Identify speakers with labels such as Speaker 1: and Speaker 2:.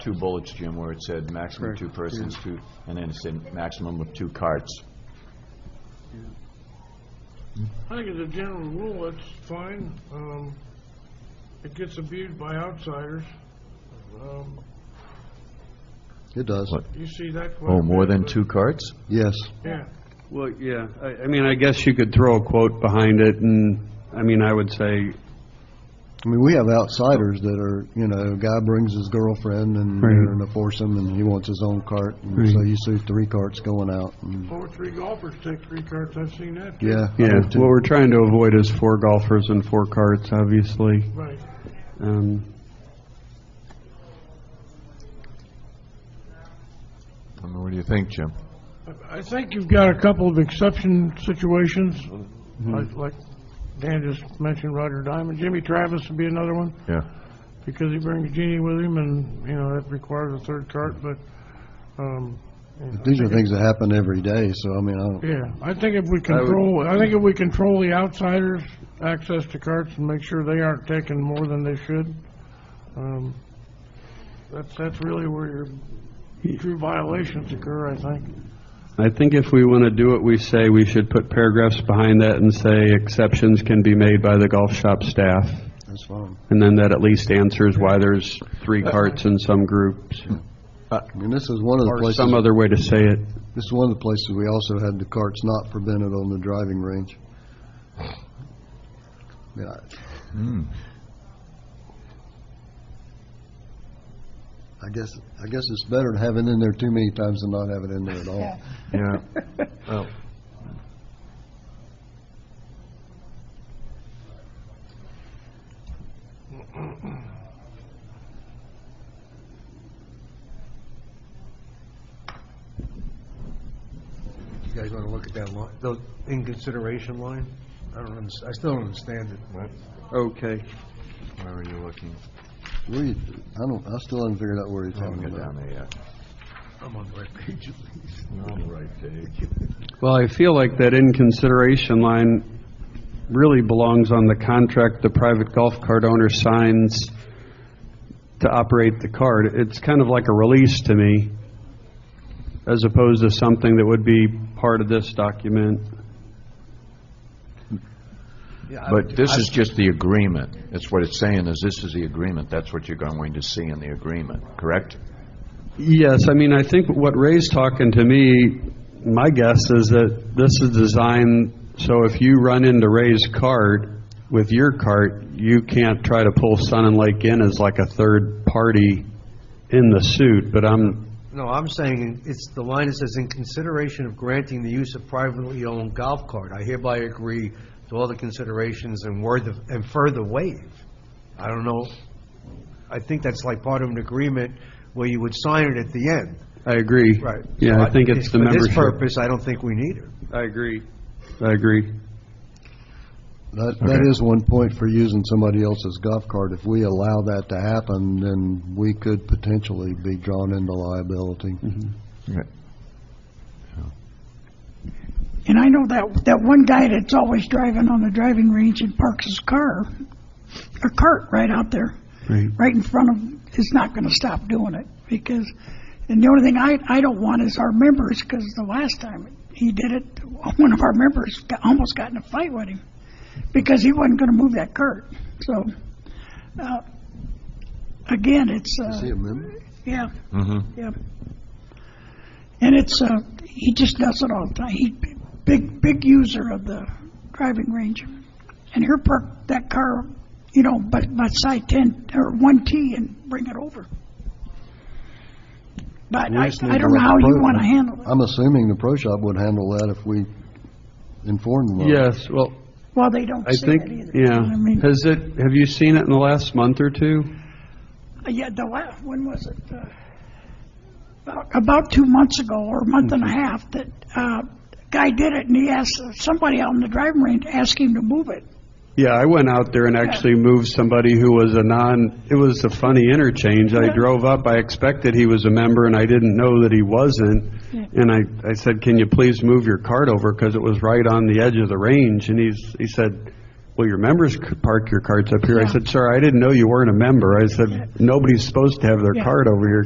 Speaker 1: two bullets, Jim, where it said maximum two persons, two, and then it said maximum of two carts.
Speaker 2: I think as a general rule, it's fine. Um, it gets abused by outsiders. Um,
Speaker 3: It does,
Speaker 1: What?
Speaker 2: you see that quite a
Speaker 1: Oh, more
Speaker 2: bit,
Speaker 1: than
Speaker 2: but-
Speaker 1: two carts?
Speaker 3: yes.
Speaker 2: Yeah.
Speaker 4: Well, yeah, I, I mean, I guess you could throw a quote behind it, and, I mean, I would say,
Speaker 3: I mean, we have outsiders that are, you know, a guy brings his girlfriend and they're
Speaker 4: Right.
Speaker 3: going to force him and he wants his own cart. And so
Speaker 4: Right.
Speaker 3: you see three carts going out and,
Speaker 2: Four, three golfers take three carts. I've seen that. too.
Speaker 3: yeah. I
Speaker 4: yeah,
Speaker 3: do too.
Speaker 4: um, what we're trying to avoid is four golfers and four carts, obviously.
Speaker 2: Right.
Speaker 4: Um,
Speaker 1: I mean, what do you think, Jim?
Speaker 2: I- I think you've got a couple of exception situations,
Speaker 3: Mm-hmm.
Speaker 2: like, like Dan just mentioned Roger Diamond. Jimmy Travis would be another one.
Speaker 1: Yeah.
Speaker 2: because he brings Jeannie with him, and, you know, that requires a third cart, but, um, you know,
Speaker 3: These are things that happen every day, so I mean, I don't,
Speaker 2: yeah, I think if we control, I think if we control the outsiders' access to carts and make sure they aren't taking more than they should, um, that's, that's really where your true violations occur, I think.
Speaker 4: I think if we want to do what we say, we should put paragraphs behind that and say exceptions can be made by the golf shop staff,
Speaker 3: that's fine.
Speaker 4: and then that at least answers why there's three carts in some groups,
Speaker 3: I mean, this is one of the
Speaker 4: or
Speaker 3: places,
Speaker 4: some other way to say it.
Speaker 3: this is one of the places we also had the carts not prevented on the driving range. Yeah, I guess, I guess it's better to have it in there too many times than not have it in there at all.
Speaker 1: Yeah.
Speaker 5: You guys want to look at that line, the in consideration line? I don't understand, I still don't understand it.
Speaker 4: Okay.
Speaker 1: Where are you looking?
Speaker 3: Where you, I don't, I still haven't figured out where you're
Speaker 1: I haven't
Speaker 3: talking
Speaker 1: got down
Speaker 3: about.
Speaker 1: there yet.
Speaker 5: I'm on the right page at least.
Speaker 1: You're on the right page.
Speaker 4: Well, I feel like that in consideration line really belongs on the contract the private golf cart owner signs to operate the cart. It's kind of like a release to me, as opposed to something that would be part of this document.
Speaker 5: Yeah, I
Speaker 1: But
Speaker 5: would-
Speaker 1: this is just the agreement. That's what it's saying, is this is the agreement. That's what you're going to see in the agreement, correct?
Speaker 4: Yes, I mean, I think what Ray's talking to me, my guess is that this is designed so if you run into Ray's cart with your cart, you can't try to pull Sun and Lake in as like a third party in the suit, but I'm,
Speaker 5: No, I'm saying it's, the line that says, "In consideration of granting the use of privately owned golf cart, I hereby agree to all the considerations and word, of- and further waive." I don't know, I think that's like part of an agreement where you would sign it at the end.
Speaker 4: I agree. Yeah, I think it's the membership.
Speaker 5: For this purpose, I don't think we need it.
Speaker 4: I agree. I agree.
Speaker 3: That, that is one point for using somebody else's golf cart. If we allow that to happen, then we could potentially be drawn into liability.
Speaker 1: Right.
Speaker 6: And I know that, that one guy that's always driving on the driving range and parks his car, a cart right out there,
Speaker 4: Right.
Speaker 6: right in front of him, is not gonna stop doing it, because, and the only thing I, I don't want is our members, because the last time he did it, one of our members got- almost got in a fight with him, because he wasn't gonna move that cart, so, uh, again, it's, uh.
Speaker 3: Is he a member?
Speaker 6: Yeah.
Speaker 4: Mm-hmm.
Speaker 6: Yeah. And it's, uh, he just does it all the time. He, big, big user of the driving range. And he'll park that car, you know, but by side ten, or one T and bring it over. But
Speaker 3: We
Speaker 6: I,
Speaker 3: just need
Speaker 6: I
Speaker 3: to
Speaker 6: don't know
Speaker 3: let the
Speaker 6: how you
Speaker 3: pro-
Speaker 6: want to handle it.
Speaker 3: I'm assuming the pro shop would handle that if we informed them. of it.
Speaker 4: Yes, well,
Speaker 6: Well, they don't
Speaker 4: I
Speaker 6: say that
Speaker 4: think,
Speaker 6: either. you know
Speaker 4: yeah.
Speaker 6: what I mean,
Speaker 4: Has it, have you seen it in the last month or two?
Speaker 6: Uh, yeah, the last, when was it? Uh, About, about two months ago, or a month and a half, that, uh, guy did it, and he asked, somebody out in the driving range asked him to move it.
Speaker 4: Yeah, I went out there and actually moved somebody who was a non, it was a funny interchange. I
Speaker 6: Yeah.
Speaker 4: drove up, I expected he was a member, and I didn't know that he wasn't.
Speaker 6: Yeah.
Speaker 4: And I, I said, "Can you please move your cart over?" Because it was right on the edge of the range. And he's, he said, "Well, your members could park your carts up here." I
Speaker 6: Yeah.
Speaker 4: said, "Sir, I didn't know you weren't a member." I said, "Nobody's supposed to have their
Speaker 6: Yeah.
Speaker 4: cart over here.